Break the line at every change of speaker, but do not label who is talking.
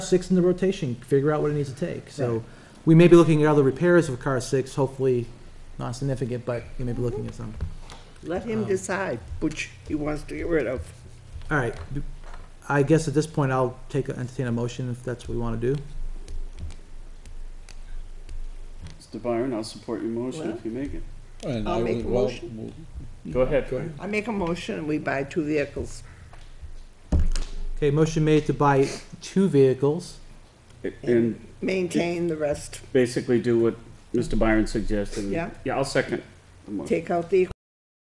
six in the rotation, figure out what it needs to take. So we may be looking at other repairs of car six, hopefully not significant, but you may be looking at some.
Let him
Um,
decide which he wants to get rid of.
All right, I guess at this point, I'll take, entertain a motion if that's what we want to do.
Mr. Byron, I'll support your motion
Well-
if you make it.
And
I'll
I
make
would-
a
well,
motion.
well,
Go ahead.
Go ahead.
I make a motion and we buy two vehicles.
Okay, motion made to buy two vehicles.
And
Maintain the rest.
basically do what Mr. Byron suggested.
Yeah.
Yeah, I'll second the motion.
Take out the